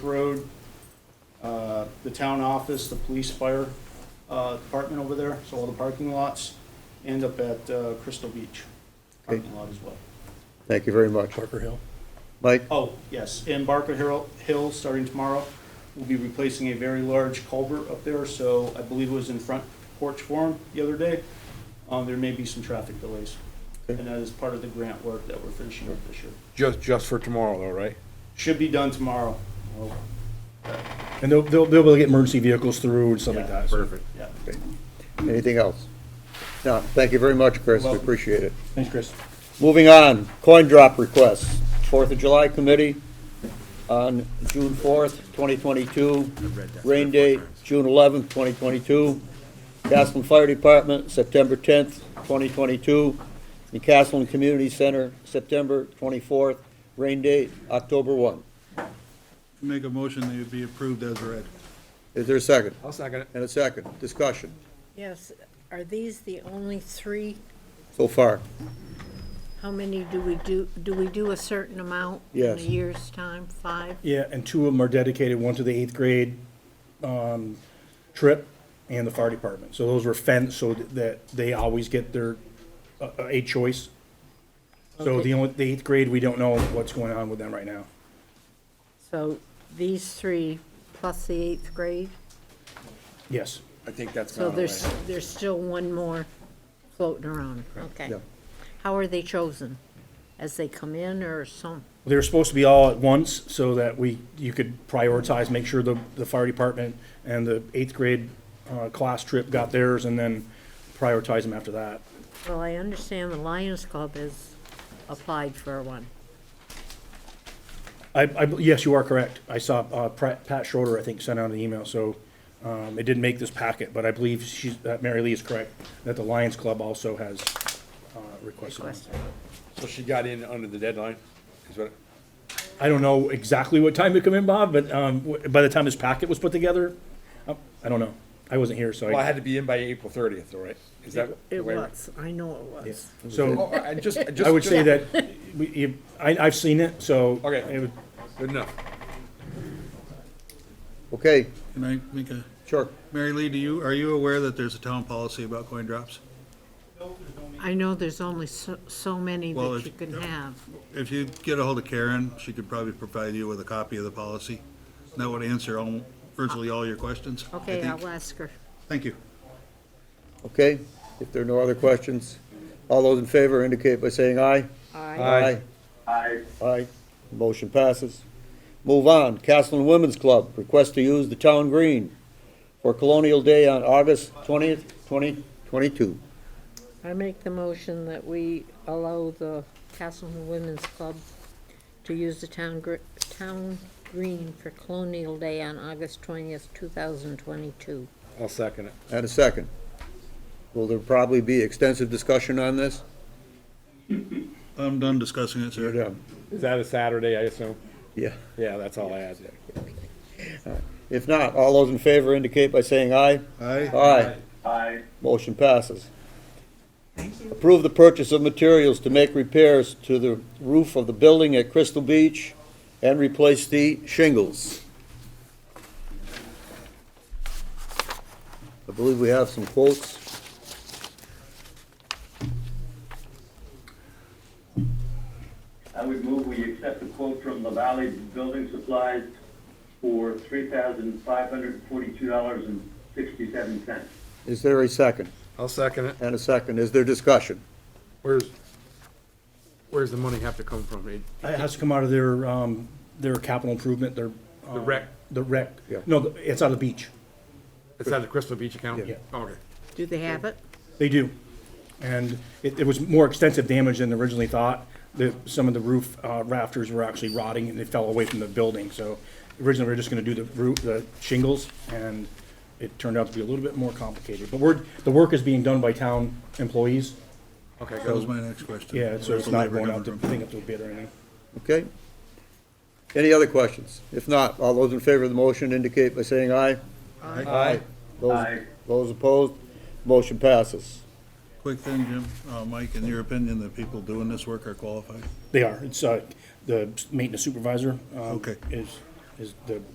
Road, uh, the town office, the police fire uh, department over there, so all the parking lots, end up at uh, Crystal Beach Okay. parking lot as well. Thank you very much. Parker Hill. Mike, Oh, yes, and Barker Hill, Hill, starting tomorrow, will be replacing a very large culvert up there, so I believe it was in front porch forum the other day. Um, There may be some traffic delays, and Okay. that is part of the grant work that we're finishing up this year. Just, just for tomorrow though, right? Should be done tomorrow. Oh, And they'll, they'll, they'll be able to get emergency vehicles through and stuff like Yeah. that. Perfect. Yeah. anything else? No, thank you very much, Chris, we Welcome. appreciate it. Thanks, Chris. Moving on, coin drop requests. Fourth of July Committee on June fourth, twenty twenty-two. Rain date, June eleventh, twenty twenty-two. Castleton Fire Department, September tenth, twenty twenty-two. The Castleton Community Center, September twenty-fourth. Rain date, October one. Make a motion that it be approved as read. Is there a second? I'll second it. And a second, discussion, Yes, are these the only three? so far. How many do we do, do we do a certain amount? Yes. In a year's time, five? Yeah, and two of them are dedicated, one to the eighth grade, um, trip and the fire department. So those were fenced so that they always get their, uh, uh, a choice. So the only, the eighth grade, we don't know what's going on with them right now. So these three plus the eighth grade? Yes. I think that's So Oh, gone there's, away. there's still one more floating around, okay. Yeah. How are they chosen? As they come in or some, They were supposed to be all at once so that we, you could prioritize, make sure the, the fire department and the eighth grade, uh, class trip got theirs and then prioritize them after that. well, I understand the Lions Club has applied for one. I, I, yes, you are correct. I saw, uh, Pat Pat Schroeder, I think, sent out an email, so, um, it didn't make this packet, but I believe she's, that Mary Lee is correct, that the Lions Club also has, uh, requested. one. Question. So she got in under the deadline, is what, I don't know exactly what time it come in, Bob, but, um, w- by the time this packet was put together, uh, I don't know. I wasn't here, so well, I I, had to be in by April thirtieth, all right? Is that? the It way- was, I know it was. so. Oh, I just, I just. I would say just- that, we, you- I, I've seen it, so. Okay. it would- Good enough. Okay, Can I make a, sure. Mary Lee, do you, are you aware that there's a town policy about coin drops? I know there's only so, so many Well, if- that you can have. If you get a hold of Karen, she could probably provide you with a copy of the policy. That would answer all, virtually all your questions. I Okay, uh, think. I'll ask her. Thank you. Okay, if there are no other questions, all those in favor indicate by saying aye. Aye. Aye. Aye, motion passes. Move on, Castleton Women's Club, request to use the town green for Colonial Day on August twentieth, twenty twenty-two. I make the motion that we allow the Castleton Women's Club to use the town gr- town green for Colonial Day on August twentieth, two thousand twenty-two. I'll second it. And a second. Will there probably be extensive discussion on this? I'm done discussing it, sir. Yeah. Is that a Saturday, I assume? Yeah. Yeah, that's all I had. If not, all those in favor indicate by saying aye. Aye. Aye. Aye. Motion passes. Approve the purchase of materials to make repairs to the roof of the building at Crystal Beach and replace the shingles. I believe we have some quotes. I would move we accept the quote from La Valley Building Supplies for three thousand five hundred forty-two dollars and sixty-seven cents. Is there a second? I'll second it. And a second. Is there discussion? Where's, where's the money have to come from? It- It has to come out of their, um, their capital improvement, their. The um, rec. The rec. Yeah. No, the- it's out of the beach. It's out of the Crystal Beach account? Yeah. Okay. Do they have it? They do. And it, it was more extensive damage than originally thought. The, some of the roof uh, rafters were actually rotting and they fell away from the building, so originally we were just gonna do the roof, the shingles, and it turned out to be a little bit more complicated. But we're, the work is being done by town employees, Okay, That was good. my next question. yeah, so Where's it's the not labor going out coming to, from? thing up to a bid or anything. Okay? Any other questions? If not, all those in favor of the motion indicate by saying aye. Aye. Those, Aye. those opposed? Motion passes. Quick thing, Jim, uh, Mike, in your opinion, the people doing this work are qualified? They are, it's, uh, the maintenance supervisor, um, Okay. is, is the